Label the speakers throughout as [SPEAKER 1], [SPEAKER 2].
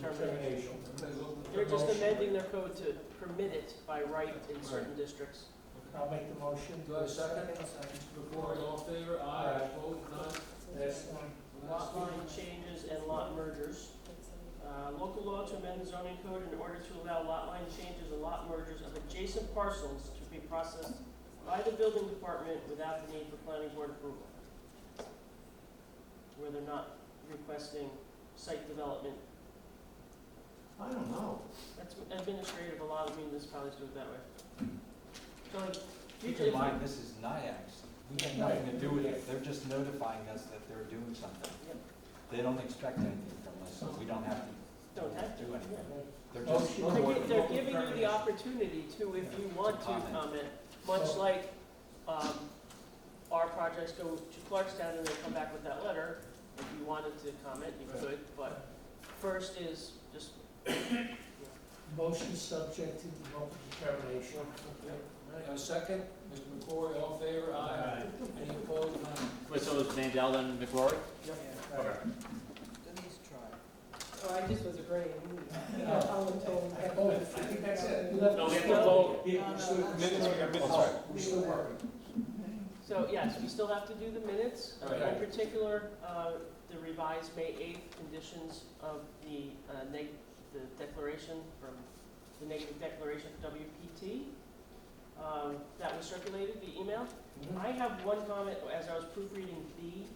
[SPEAKER 1] termination.
[SPEAKER 2] They're just amending their code to permit it by right in certain districts.
[SPEAKER 1] I'll make the motion.
[SPEAKER 3] Do I have a second?
[SPEAKER 1] Second.
[SPEAKER 3] Before, all in favor,
[SPEAKER 1] Aye.
[SPEAKER 3] aye, opposed, none.
[SPEAKER 1] Last one.
[SPEAKER 2] Lot line changes and lot mergers. Uh, Local law to amend the zoning code in order to allow lot line changes and lot mergers of adjacent parcels to be processed by the building department without the need for planning board approval. Where they're not requesting site development.
[SPEAKER 4] I don't know.
[SPEAKER 2] That's administrative, a lot of municipalities do it that way. So like,
[SPEAKER 5] Keep
[SPEAKER 2] future-
[SPEAKER 5] in mind, this is NIAX. We have nothing to do with it. They're just notifying us that they're doing something.
[SPEAKER 2] Yep.
[SPEAKER 5] They don't expect anything from us, so we don't have to
[SPEAKER 2] Don't have to.
[SPEAKER 5] do anything. They're
[SPEAKER 1] Well,
[SPEAKER 5] just.
[SPEAKER 1] she-
[SPEAKER 2] They're gi-
[SPEAKER 5] reporting.
[SPEAKER 2] They're giving you the opportunity to, if you want to
[SPEAKER 5] Comment.
[SPEAKER 2] comment, much like um, our projects go to Clarkstown and they come back with that letter. If you wanted to comment, you could, but first is just,
[SPEAKER 1] Motion subject to the local determination.
[SPEAKER 3] All right, a second, Mr. McCory, all in favor, aye, any opposed, none.
[SPEAKER 6] Wait, so it's Mandel and McLaury?
[SPEAKER 7] Oh, I just was agreeing. All in total.
[SPEAKER 1] I vote. I think that's it. We
[SPEAKER 6] No, we have to
[SPEAKER 1] left-
[SPEAKER 6] vote.
[SPEAKER 1] Yeah, we're still-
[SPEAKER 7] Minutes, we
[SPEAKER 1] We're still- we're still working.
[SPEAKER 2] so yes, we still have to do the minutes. Uh, In
[SPEAKER 3] Okay.
[SPEAKER 2] particular, uh, the revised May 8th conditions of the uh, neg, the declaration from, the negative declaration from WPT. um, That was circulated, the email. I have one comment as I was proofreading B.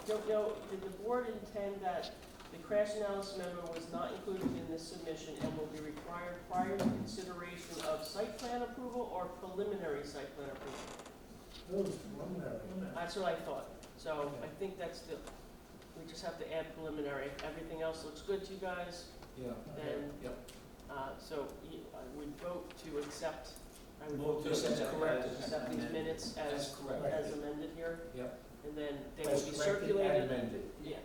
[SPEAKER 2] I don't know, did the board intend that the crash analysis memo was not included in this submission and will be required prior to consideration of site plan approval or preliminary site plan approval?
[SPEAKER 1] Those preliminary.
[SPEAKER 2] That's what I thought. So I think that's the, we just have to add preliminary. If Everything else looks good to you guys,
[SPEAKER 3] Yeah.
[SPEAKER 2] then,
[SPEAKER 3] Yep.
[SPEAKER 2] uh, so you- I would vote to accept, I would
[SPEAKER 3] Vote
[SPEAKER 2] vote
[SPEAKER 3] to
[SPEAKER 2] to accept,
[SPEAKER 3] accept
[SPEAKER 2] correct,
[SPEAKER 3] as
[SPEAKER 2] accept these
[SPEAKER 3] amended.
[SPEAKER 2] minutes as
[SPEAKER 3] That's correct.
[SPEAKER 2] as amended here.
[SPEAKER 3] Yep.
[SPEAKER 2] And then they will be
[SPEAKER 1] As corrected and
[SPEAKER 2] circulated,
[SPEAKER 1] amended.
[SPEAKER 2] yeah,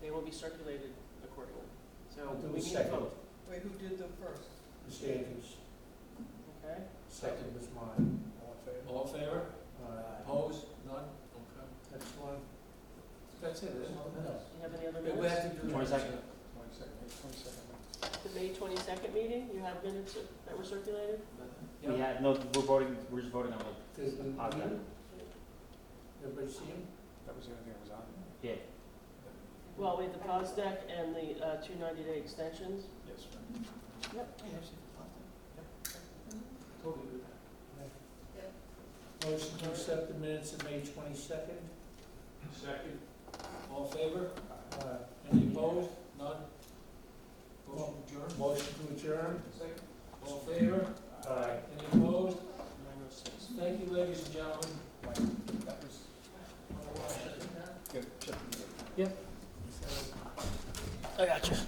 [SPEAKER 2] they will be circulated accordingly. So
[SPEAKER 1] I'll do a
[SPEAKER 2] we need a
[SPEAKER 1] second.
[SPEAKER 2] vote,
[SPEAKER 7] Wait, who did the first?
[SPEAKER 1] Ms. Andrews,
[SPEAKER 2] okay?
[SPEAKER 1] second was mine. All in favor?
[SPEAKER 3] All in favor,
[SPEAKER 1] All right.
[SPEAKER 3] opposed, none, okay.
[SPEAKER 1] That's one.
[SPEAKER 3] That's it, isn't it?
[SPEAKER 1] No.
[SPEAKER 2] Do you have any other
[SPEAKER 3] Okay, we
[SPEAKER 2] minutes?
[SPEAKER 3] have to do.
[SPEAKER 6] 22nd.
[SPEAKER 2] The May twenty-second meeting, you have minutes that were circulated?
[SPEAKER 3] Yeah.
[SPEAKER 6] We had, no, we're voting, we're just voting on the
[SPEAKER 1] There's been,
[SPEAKER 6] positive.
[SPEAKER 1] everybody see him?
[SPEAKER 4] That was the only thing that was on.
[SPEAKER 6] Yeah.
[SPEAKER 2] Well, we had the POS deck and the, uh, two ninety-day extensions.
[SPEAKER 4] Yes.
[SPEAKER 3] Totally do that.
[SPEAKER 1] Motion to accept the minutes of May twenty-second.
[SPEAKER 3] Second. All in favor?
[SPEAKER 1] Uh,
[SPEAKER 3] Any opposed? None? Motion adjourned?
[SPEAKER 1] Motion to adjourn.
[SPEAKER 3] Second. All in favor?
[SPEAKER 1] Aye.
[SPEAKER 3] Any opposed?
[SPEAKER 2] Nine oh six.
[SPEAKER 3] Thank you, ladies and gentlemen.
[SPEAKER 4] That was.
[SPEAKER 3] Otherwise, I think that-
[SPEAKER 4] Good. Check.
[SPEAKER 2] I got you.